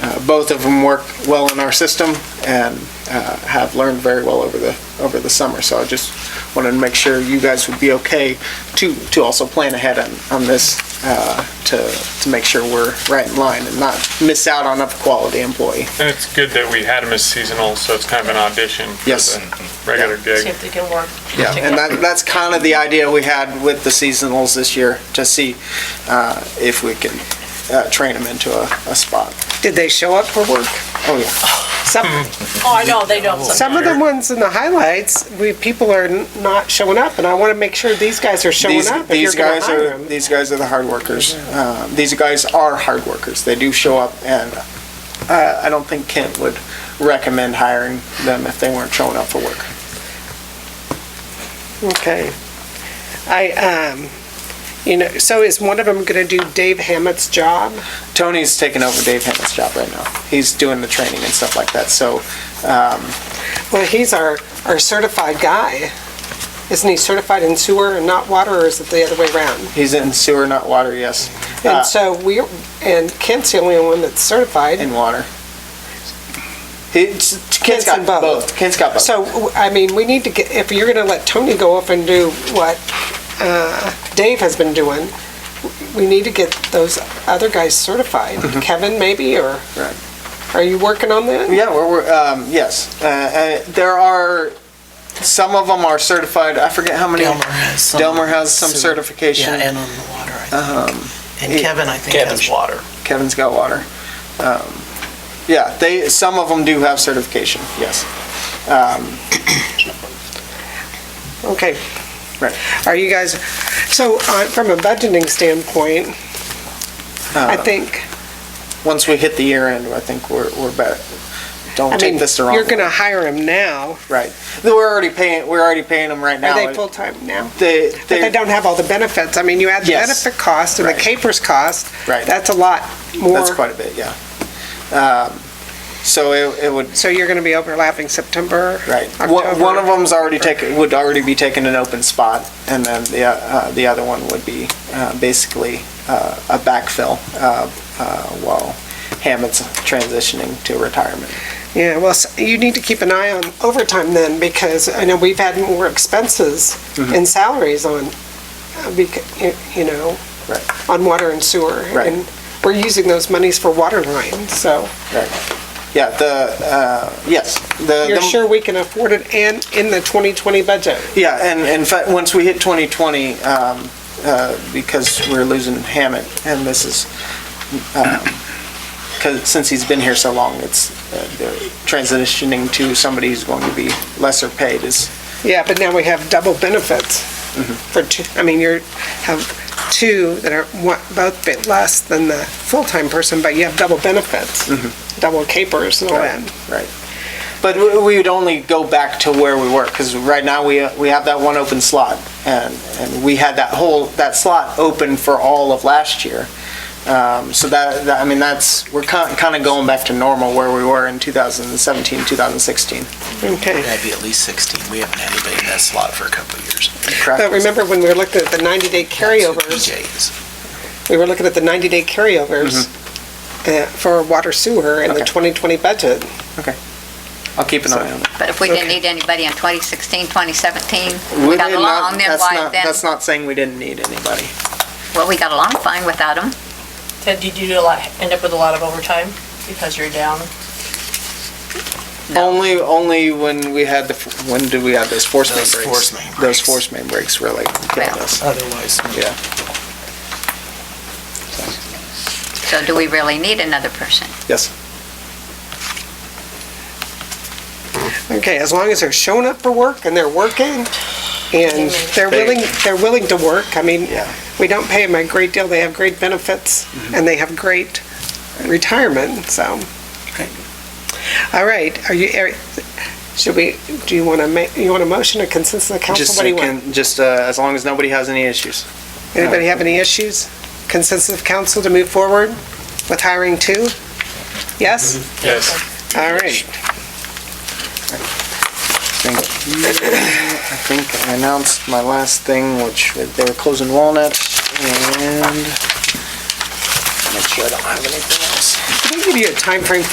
Uh, both of them work well in our system and uh, have learned very well over the, over the summer. So I just wanted to make sure you guys would be okay to, to also plan ahead on, on this, uh, to, to make sure we're right in line and not miss out on a quality employee. And it's good that we had him as seasonal, so it's kind of an audition. for Yes. the Regular See gig. if they can work. Yeah, and that, that's kind of the idea we had with the seasonals this year, to see uh, if we can uh, train them into a, a spot. Did they show up for work? Oh, yeah. Some, Hmm. Oh, I know, they don't some sometimes. of the ones in the highlights, we, people are n- not showing up, and I want to make sure these guys are showing These, up if you're these going to guys hire are, 'em. these guys are the hard workers. Uh, These guys are hard workers. They do show up, and uh, I don't think Kent would recommend hiring them if they weren't showing up for work. Okay. I, um, you know, so is one of them going to do Dave Hammett's job? Tony's taking over Dave Hammond's job right now. He's doing the training and stuff like that, so um, Well, he's our, our certified guy. Isn't he certified in sewer and not water, or is it the other way around? he's in sewer, not water, yes, Uh, And so we, and Kent's the only one that's certified. in water. He- Kent's in got both. both. Kent's got both. So, w- I mean, we need to get, if you're gonna let Tony go off and do what uh, Dave has been doing, we need to get those other guys certified. Kevin, maybe, or Mm-hmm. Right. are you working on that? Yeah, we're, we're um, yes. Uh, uh, there are some of them are certified. I forget how many. Delmer has some. Delmer has some sewer- certification. Um, Yeah, and on the water, I think. And Kevin, I think, has water. Kevin's got water. Um, yeah, they some of them do have certification. Yes. Okay. Right. Are you guys, so uh, from a budgeting standpoint, Uh, I think, Once we hit the year end, I think we're we're better. Don't I take mean, this the wrong you're gonna way. hire him now. Right. We're already paying. We're already paying them right now. Are they full-time now? They, But they they- don't have all the benefits. I mean, you add the Yes. benefit cost and the Right. capers cost. Right. That's a lot more. That's quite a bit. Yeah. Um, so it, it would So you're going to be overlapping September? Right. One October. one of them's already taken, would already be taking an open spot, and then the, uh, the other one would be uh, basically uh, a backfill uh, uh, while Hammond's transitioning to retirement. Yeah, well, s- you need to keep an eye on overtime then, because I know we've had more expenses Mm-hmm. and salaries on, uh, bec- y- you know, Right. on water and sewer. Right. And we're using those monies for water lines, so Yeah, the, uh, yes, the. you're the- sure we can afford it and in the 2020 budget? Yeah, and in fact, once we hit 2020, um, uh, because we're losing Hammett, and this is, um, 'cause since he's been here so long, it's, uh, they're transitioning to somebody who's going to be lesser paid is, Yeah, but now we have double benefits Mm-hmm. for two, I mean, you're, have two that are one- both bit less than the full-time person, but you have double benefits, double capers and all Mm-hmm. Right. that. Right. But we we would only go back to where we were, because right now, we, we have that one open slot, and, and we had that whole, that slot open for all of last year. Um, So that, that- I mean, that's, we're kind of going back to normal where we were in 2017, 2016. Okay. That'd be at least 16. We haven't had anybody in that slot for a couple of years. Correct? But remember when we were looking at the 90-day carryovers, PJs. we were looking at the 90-day carryovers uh, for water sewer in the Mm-hmm. Okay. 2020 budget. I'll keep an eye on it. But if we didn't need anybody in 2016, 2017, we We got did along, not- then that's why, not- then, That's not saying we didn't need anybody. well, we got along fine without them. Ted, did you do a lot, end up with a lot of overtime because you're down? No. Only, only when we had the, f- when did we have those force main Those breaks? force main Those breaks. force main breaks really killed Well. us. Otherwise, Yeah. So do we really need another person? Yes. Okay, as long as they're showing up for work and they're working and they're They- willing, they're willing to work. I mean, Yeah. Mm-hmm. we don't pay them a great deal. They have great benefits and they have great retirement, so. Okay. All right, are you, are- should we, do you want to make, you want a motion, a consensus of council? Just, What do you want? can- just uh, as long as nobody has any issues. Uh, Anybody have any issues? Consensus of council to move forward with hiring two? Yes? Yes. Mm-hmm. All right. Thank you. I think I announced my last thing, which they were closing Walnut and make sure I don't have anything else. Can I give you a time frame?